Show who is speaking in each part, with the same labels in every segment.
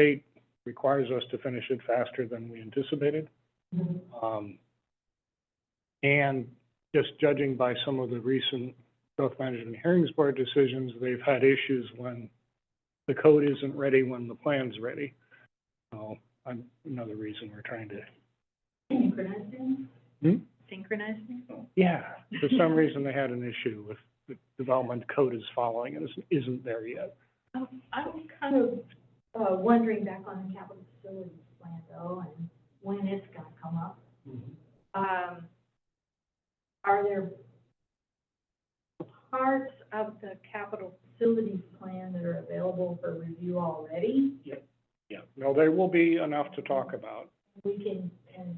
Speaker 1: state requires us to finish it faster than we anticipated. Um, And just judging by some of the recent Growth Management Hearings Board decisions, they've had issues when the code isn't ready, when the plan's ready. So, I'm, another reason we're trying to,
Speaker 2: Synchronizing?
Speaker 1: Hmm?
Speaker 2: Synchronizing?
Speaker 1: yeah, for some reason they had an issue with the development code is following and isn't- isn't there yet.
Speaker 2: Um, I was kind of, uh, wondering back on the capital facilities plan though, and when it's gonna come up. Um, are there parts of the capital facilities plan that are available for review already?
Speaker 1: Yeah, no, there will be enough to talk about.
Speaker 2: We can, and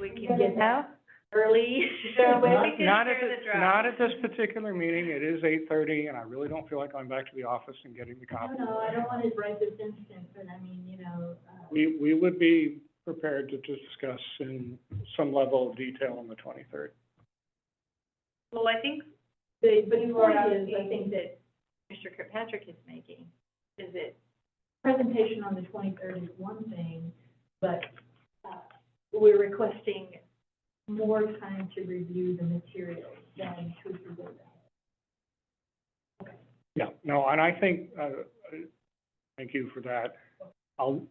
Speaker 3: We
Speaker 2: can get that
Speaker 3: early.
Speaker 2: Yeah, but I
Speaker 1: Not not at, thi- not at this particular meeting, it is eight thirty, and I really don't feel like going back to the office and getting the
Speaker 2: I
Speaker 1: copy.
Speaker 2: don't know, I don't want to write this instant, but I mean, you know, uh,
Speaker 1: We, we would be prepared to discuss in some level of detail on the twenty-third.
Speaker 3: Well, I think
Speaker 2: the,
Speaker 3: the
Speaker 2: but the
Speaker 3: point
Speaker 2: point
Speaker 3: is,
Speaker 2: is, I think that
Speaker 3: that Mr. Kirkpatrick is making, is it,
Speaker 2: presentation on the twenty-third is one thing, but, uh, we're requesting more time to review the materials than to review that.
Speaker 1: Yeah, no, and I think, uh, uh, thank you for that. I'll,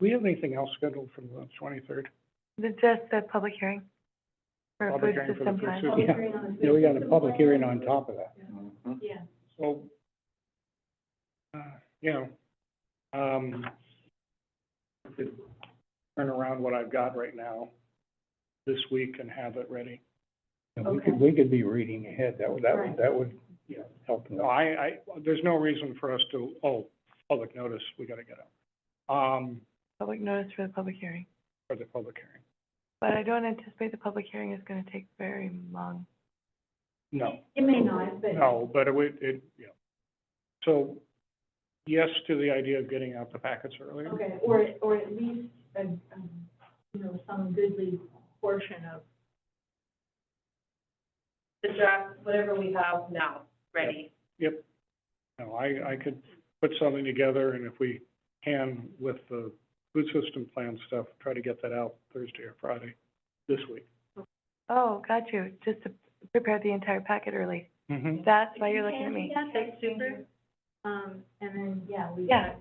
Speaker 1: we have anything else scheduled for the twenty-third?
Speaker 4: Just the public hearing for
Speaker 1: Public
Speaker 4: food
Speaker 1: hearing for the
Speaker 4: system
Speaker 1: food
Speaker 4: plan.
Speaker 1: system.
Speaker 2: Public
Speaker 1: Yeah.
Speaker 2: hearing on the
Speaker 1: Yeah, we got a
Speaker 2: system
Speaker 1: public
Speaker 2: plan.
Speaker 1: hearing on top of that,
Speaker 2: Yeah,
Speaker 1: so, uh, you know, um, could turn around what I've got right now this week and have it ready.
Speaker 5: And we
Speaker 2: Okay.
Speaker 5: could, we could be reading ahead, that would, that
Speaker 2: Right.
Speaker 5: would, that would you know, help.
Speaker 1: No, I, I, there's no reason for us to, oh, public notice, we gotta get out, um,
Speaker 4: Public notice for the public hearing.
Speaker 1: for the public hearing.
Speaker 4: But I don't anticipate the public hearing is going to take very long.
Speaker 1: No,
Speaker 2: it may not, but.
Speaker 1: no, but it, would- it, yeah. So, yes to the idea of getting out the packets earlier.
Speaker 2: Okay, or, or at least, a um, you know, some goodly portion of
Speaker 3: the draft, whatever we have now, ready?
Speaker 1: No, I, I could put something together, and if we can, with the food system plan stuff, try to get that out Thursday or Friday this week.
Speaker 4: Oh, got you, just to prepare the entire packet early.
Speaker 1: Mm-hmm.
Speaker 4: That's why you're looking at me.
Speaker 2: Yeah,
Speaker 3: That's super.
Speaker 2: Um, and then, yeah, we
Speaker 4: Yeah.
Speaker 2: got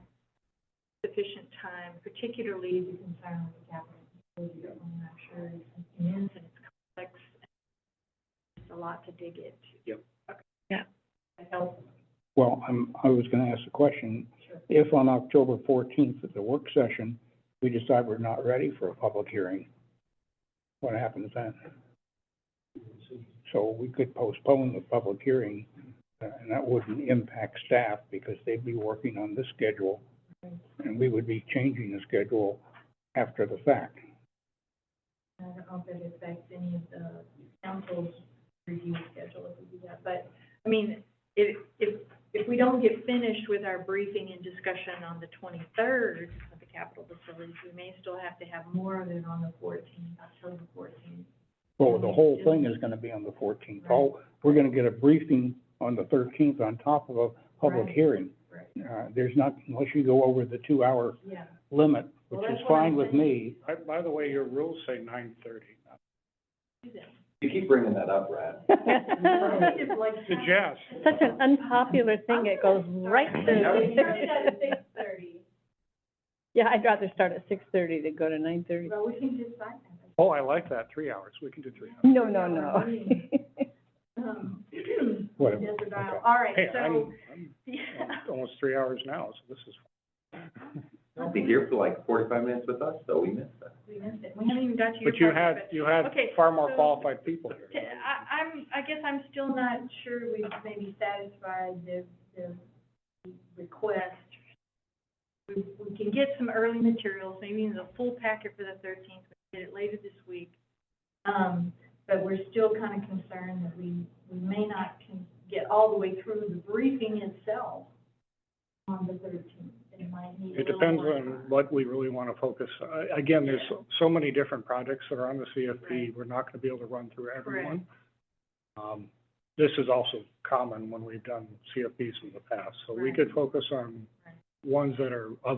Speaker 2: sufficient time, particularly the concern with the capital facilities, and I'm sure it's an immense and it's complex. and It's a lot to dig into.
Speaker 1: Yep.
Speaker 2: Okay.
Speaker 4: Yeah.
Speaker 2: That helps.
Speaker 5: Well, I'm, I was gonna ask a question.
Speaker 2: Sure.
Speaker 5: If on October fourteenth at the work session, we decide we're not ready for a public hearing, what happens then? So we could postpone the public hearing, uh, and that wouldn't impact staff because they'd be working on the schedule. And we would be changing the schedule after the fact.
Speaker 2: I don't know if it affects any of the council's review schedule if we do that, but, I mean, if, if, if we don't get finished with our briefing and discussion on the twenty-third of the capital facilities, we may still have to have more of it on the fourteenth, October fourteenth.
Speaker 5: Well, the whole thing is gonna be on the fourteenth. Oh, we're gonna get a briefing on the thirteenth on top of a public
Speaker 2: Right.
Speaker 5: hearing.
Speaker 2: Right.
Speaker 5: Uh, there's not, unless you go over the two-hour
Speaker 2: Yeah.
Speaker 5: limit,
Speaker 2: Well,
Speaker 5: which is
Speaker 2: that's what I'm
Speaker 5: fine with me.
Speaker 1: By, by the way, your rules say nine thirty.
Speaker 6: You keep bringing that up, Brad.
Speaker 2: It's like-
Speaker 1: Suggest,
Speaker 7: Such an unpopular thing, it goes right
Speaker 2: They started
Speaker 7: to,
Speaker 2: at six thirty,
Speaker 7: yeah, I'd rather start at six thirty than go to nine thirty.
Speaker 2: but we can decide that.
Speaker 1: oh, I like that, three hours, we can do three hours.
Speaker 7: No, no, no.
Speaker 2: Um,
Speaker 5: Whatever,
Speaker 2: desert isle.
Speaker 5: okay.
Speaker 2: All right,
Speaker 1: Hey,
Speaker 2: so,
Speaker 1: I'm, I'm
Speaker 2: yeah.
Speaker 1: almost three hours now, so this is.
Speaker 6: I'll be here for like forty-five minutes with us, so we missed that.
Speaker 2: We missed it. We haven't even got to your.
Speaker 1: But you
Speaker 2: part
Speaker 1: had,
Speaker 2: yet.
Speaker 1: you had
Speaker 2: Okay,
Speaker 1: far more
Speaker 2: so-
Speaker 1: qualified people here. right?
Speaker 2: I, I'm, I guess I'm still not sure we've maybe satisfied the, the request. We, we can get some early materials, maybe in the full packet for the thirteenth, we can get it later this week. Um, but we're still kind of concerned that we, we may not can get all the way through the briefing itself on the thirteenth. It might need a
Speaker 1: It
Speaker 2: little
Speaker 1: depends
Speaker 2: more
Speaker 1: on
Speaker 2: time.
Speaker 1: what we really want to focus. I- Again, there's so- so many different projects that are on the CFP.
Speaker 2: Right.
Speaker 1: We're not going to be able to run through everyone. Um, This is also common when we've done CFPs in the past, so we
Speaker 2: Right.
Speaker 1: could focus on
Speaker 2: Right.
Speaker 1: ones that are of